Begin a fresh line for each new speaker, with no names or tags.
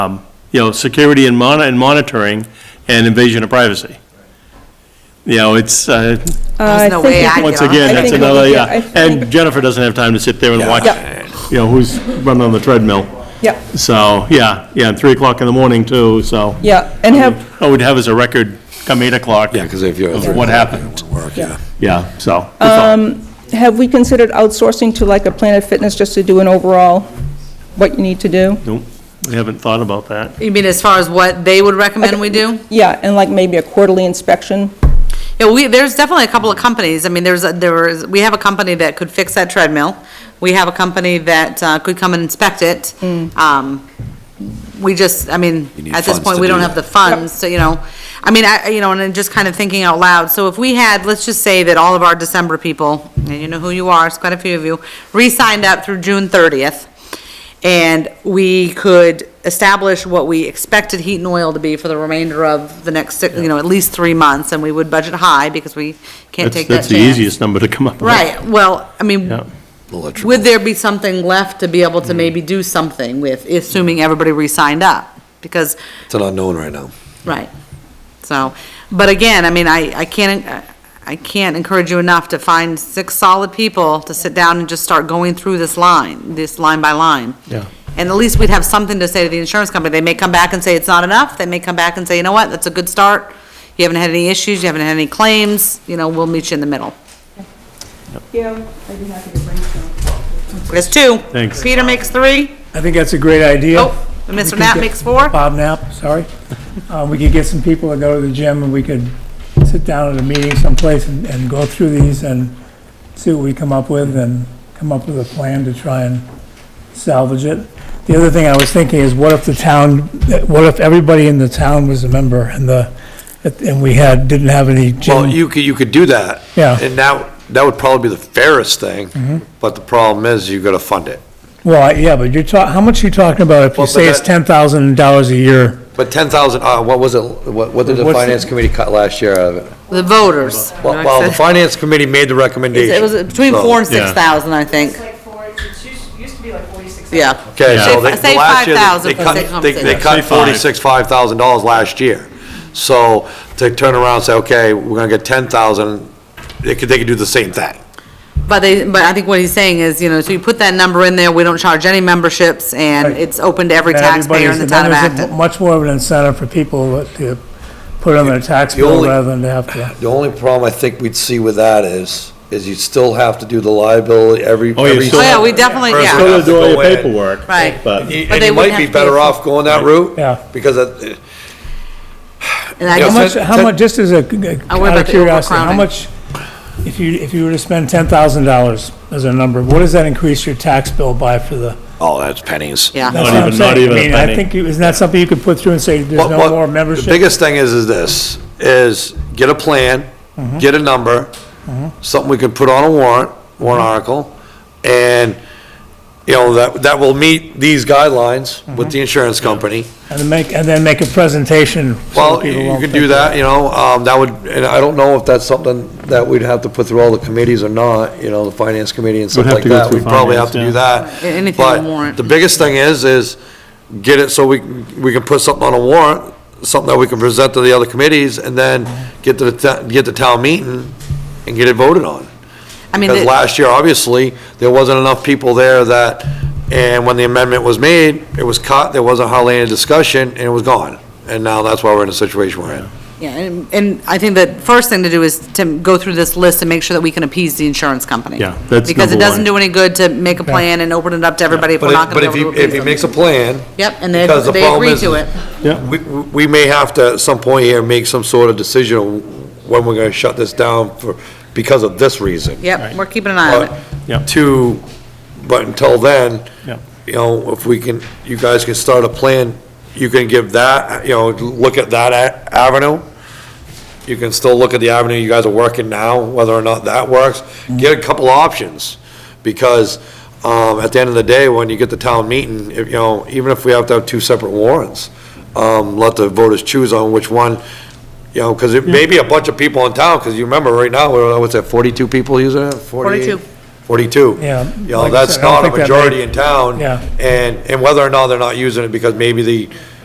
Um, you know, security and mon, and monitoring and invasion of privacy. You know, it's, uh,
There's no way I
once
get on.
again,
I
that's
think-
another,
I
yeah.
think-
And Jennifer doesn't have time to sit there and watch, you know, who's running on the treadmill.
Yeah,
So, yeah, yeah, and three o'clock in the morning too, so.
yeah, and have,
What we'd have is a record come eight o'clock.
Yeah, because if you're.
Of what happened.
Work, yeah.
Yeah, so. that's all.
Um,
have we considered outsourcing to like a Planet Fitness just to do an overall, what you need to do?
Nope, we haven't thought about that.
You mean as far as what they would recommend we do?
Yeah, and like maybe a quarterly inspection?
Yeah, we, there's definitely a couple of companies, I mean, there's, a- there is, we have a company that could fix that treadmill. We have a company that uh, could come and inspect it. Um, We just, I mean,
You need
at this
funds
point,
to
we
do
don't
that.
have the funds, so, you know, I mean, I, you know, and then just kind of thinking out loud, so if we had, let's just say that all of our December people, and you know who you are, it's quite a few of you, re-signed up through June thirtieth, and we could establish what we expected heat and oil to be for the remainder of the next, six- you know, at least three months, and we would budget high, because we can't
That's,
take that
that's
chance.
the easiest number to come up with.
Right, well, I mean,
Yeah. Mm.
Electrical.
would there be something left to be able to maybe do something with, assuming everybody re-signed up? Because
It's an unknown right now.
Right. So, but again, I mean, I, I can't, I can't encourage you enough to find six solid people to sit down and just start going through this line, this line by line.
Yeah.
And at least we'd have something to say to the insurance company. They may come back and say it's not enough. They may come back and say, you know what, that's a good start. You haven't had any issues, you haven't had any claims, you know, we'll meet you in the middle.
Yeah, I'd be happy to brainstorm.
There's two.
Thanks.
Peter makes three.
I think that's a great idea.
Oh, and
We
Mr.
could
Knapp
get-
makes four.
Bob Knapp, sorry. Uh, We could get some people to go to the gym, and we could sit down at a meeting someplace and- and go through these and see what we come up with, and come up with a plan to try and salvage it. The other thing I was thinking is, what if the town, what if everybody in the town was a member, and the, and we had, didn't have any
Well,
gym?
you could, you could do that.
Yeah.
And that, that would probably be the fairest thing, but the problem is you gotta fund it.
Well, I- yeah, but you're talking, how much are you talking about if you
Well, but
say it's
that-
$10,000 a year?
But ten thousand, uh, what was it, what, what did the
What's the-
finance committee cut last year out of it?
The voters.
Well, well, the finance committee made the recommendation.
It was between
so-
four and
Yeah.
six thousand, I think.
It's like four, it used, used to be like forty-six.
Yeah.
Okay,
Yeah.
so they,
Say
the last year, they-
5,000
they
for six
cut, they,
months.
they
Say
cut
five.
forty-six, five thousand dollars last year. So to turn around and say, okay, we're gonna get ten thousand, they could, they could do the same thing.
But they, but I think what he's saying is, you know, so you put that number in there, we don't charge any memberships, and
Right.
it's open to every
And
taxpayer in
everybody's-
the
and
town of
then there's a
Acton.
Much more of an incentive for people to put on their tax
You
bill
only-
rather than to have to.
The only problem I think we'd see with that is, is you'd still have to do the liability every.
Oh, you
every
still-
Oh, yeah, we
person
definitely- yeah.
would have
Still
to
do all
go
your
in.
paperwork.
Right.
But,
You-
But
And
they
you
wouldn't
might be
have to pay
better
for-
off going that route.
Yeah.
Because eh, it-
And I
Yeah,
How
just,
much, how much, just as a,
worry
out
Oh, about
of
the
curiosity, how
overcrowding.
much, if you, if you were to spend ten thousand dollars as a number, what does that increase your tax bill by for the?
Oh, that's pennies.
yeah.
That's
Not
what I'm
even- not
saying.
even a
I mean,
penny.
I think, you- isn't that something you could put through and say, there's
What- what-
no more
The
membership?
biggest thing is, is this, is get a plan,
Mm-hmm.
get a number, something we could put on a warrant,
Mm-hmm.
warrant article, and, you know, that, that will meet these guidelines
Mm-hmm.
with the insurance company.
And then make, and then make a presentation. so
Well,
people
you
won't
could
think
do that, you know, um, that would, and I don't know if that's something that we'd have to put through all the committees or not, you know, the finance committee and stuff
have
like
to go
that.
through
We'd probably have to do
finance,
that.
Yeah, anything on warrant.
But the biggest thing is, is get it so we, we can put something on a warrant, something that we can present to the other committees, and then get to the, ta- get to town meeting and get it voted on.
I mean,
Because
the-
last year, obviously, there wasn't enough people there that, and when the amendment was made, it was cut, there wasn't hardly any discussion, and it was gone. And now that's why we're in the situation we're in.
yeah, and, and I think the first thing to do is to go through this list and make sure that we can appease the insurance company.
Yeah, that's
Because it
number
doesn't
one.
do any good to make a plan and open it up to everybody if we're
But
not
if, but
gonna
if
be able
you,
to appease
if you
them.
makes a plan.
Yep, and they,
because the
they
problem
agree
is-
to it.
We, we may have to, at some point here, make some sort of decision on when we're gonna shut this down for, because of this reason.
Yep, we're keeping an eye on it.
Yep.
But to, but until then,
Yep.
you know, if we can, you guys can start a plan, you can give that, you know, look at that a- avenue. You can still look at the avenue you guys are working now, whether or not that works. Get a couple options, because, um, at the end of the day, when you get the town meeting, if, you know, even if we have to have two separate warrants, um, let the voters choose on which one, you know, because it may be a bunch of people in town, because you remember right now, we're, what's that, forty-two people using it? 48?
42.
42.
Yeah,
You know,
like I
that's
said, I don't
not a
think that
majority
many-
in town.
Yeah.
And, and whether or not they're not using it because maybe the,